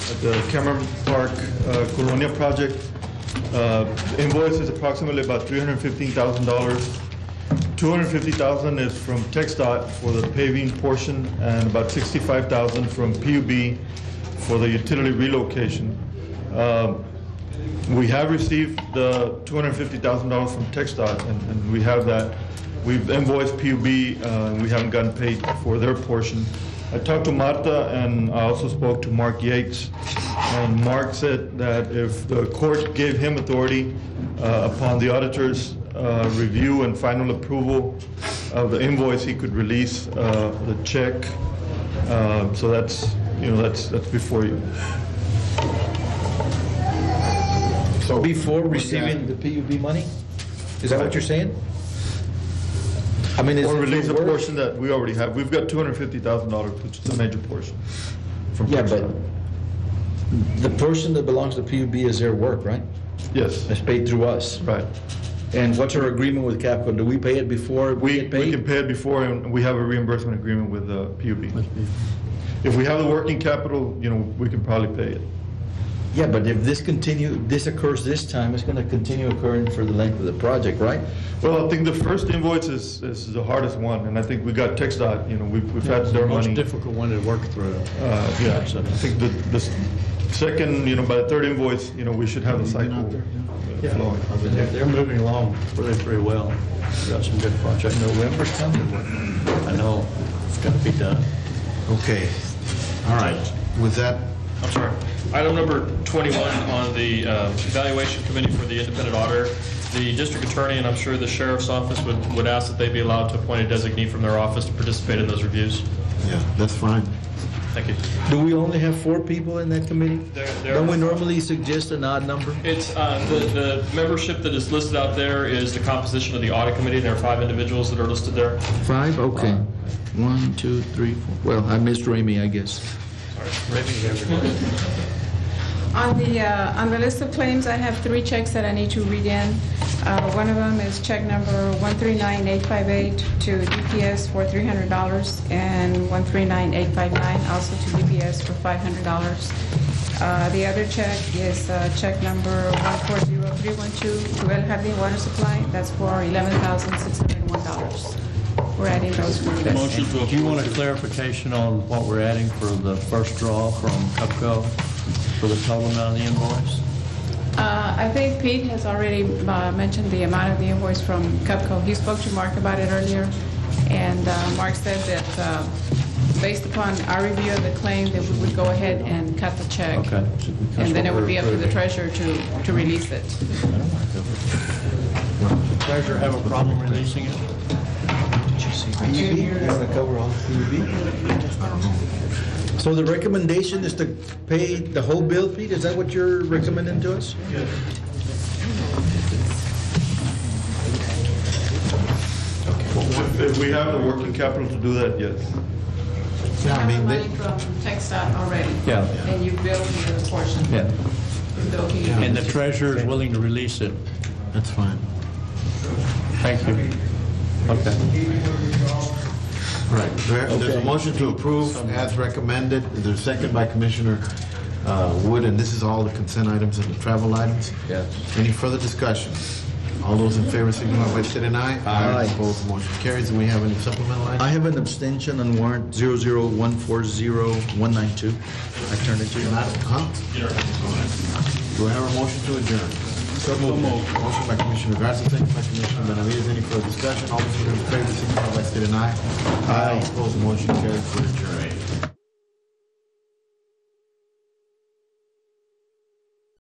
at the Cameron Park uh, Colonia project. Uh, Invoice is approximately about $315,000. $250,000 is from TXDOT for the paving portion, and about $65,000 from PUB for the utility relocation. Um, we have received the $250,000 from TXDOT, and- and we have that. We've invoiced PUB, uh, and we haven't gotten paid for their portion. I talked to Martha, and I also spoke to Mark Yates, and Mark said that if the court gave him authority uh, upon the auditor's uh, review and final approval of the invoice, he could release uh, the check. Uh, So that's, you know, that's that's before you. So Before receiving the PUB money? Is that what you're saying? I mean, is Or it release for a work? portion that we already have. We've got two hundred fifty thousand dollars, which is a major portion. from Yeah, but Kickstarter. the person that belongs to PUB is their work, right? Yes, It's paid through us. right. And what's our agreement with Capco? Do we pay it before we We, get we can paid? pay it before, and we have a reimbursement agreement with uh, PUB. If we have the working capital, you know, we can probably pay it. Yeah, but if this continue, this occurs this time, it's going to continue occurring for the length of the project, right? Well, I think the first invoice is, is the hardest one, and I think we got TXDOT, you know, we've, we've had their money. Most difficult one to work through. Uh, Yeah, I think the, the s- second, you know, by the third invoice, you know, we should have the cycle uh, Yeah, flowing. I mean, they're- they're moving along really pretty well. We've Got some good projects. November's coming. I know, it's got to be done. Okay, all right. With that, I'm sorry. Item number 21 on the uh, evaluation committee for the independent auditor. The district attorney, and I'm sure the sheriff's office would, would ask that they be allowed to appoint a designee from their office to participate in those reviews. yeah, that's fine. Thank you. Do we only have four people in that committee? There- there- Don't we normally suggest an odd number? It's, uh, the, the membership that is listed out there is the composition of the audit committee. There are five individuals that are listed there. Five, okay. One, two, three, four. Well, I missed Raimi, I guess. On the, uh, on the list of claims, I have three checks that I need to read in. Uh, One of them is check number 139858 to DPS for $300 and 139859 also to DPS for $500. Uh, The other check is uh, check number 140312 to El Jardín Water Supply. That's for $11,601. We're adding those for the list. Do you want a clarification on what we're adding for the first draw from Cupco for the total amount of the invoice? Uh, I think Pete has already uh, mentioned the amount of the invoice from Cupco. He spoke to Mark about it earlier, and uh, Mark said that uh, based upon our review of the claim, that we would go ahead and cut the check. Okay. And then it would be up to the treasurer to, to release it. Treasurer have a problem releasing it? So the recommendation is to pay the whole bill, Pete? Is that what you're recommending to us? If if we have the working capital to do that, yes. Yeah, I have mean, money they- from TechStop already. Yeah. And you billed the portion. Yeah. And Yeah. the treasurer is willing to release it? that's fine. Thank you. Okay. All right, there- there's a Okay. motion to approve as recommended. There's a second by Commissioner uh, Wood, and this is all the consent items and the travel items. Yes. Any further discussion? All those in favor signify by state and I. Aye. Opposed, motion carries. And we have any supplemental I items? have an abstention on warrant 00140-192. I turn it to you. Not- huh? Do I have a motion to adjourn? So moved. Motion by Commissioner Garcia, second by Commissioner Benavides. Any further discussion? All those in favor signify by state and I. Aye. Opposed, motion carries. We're adjourned.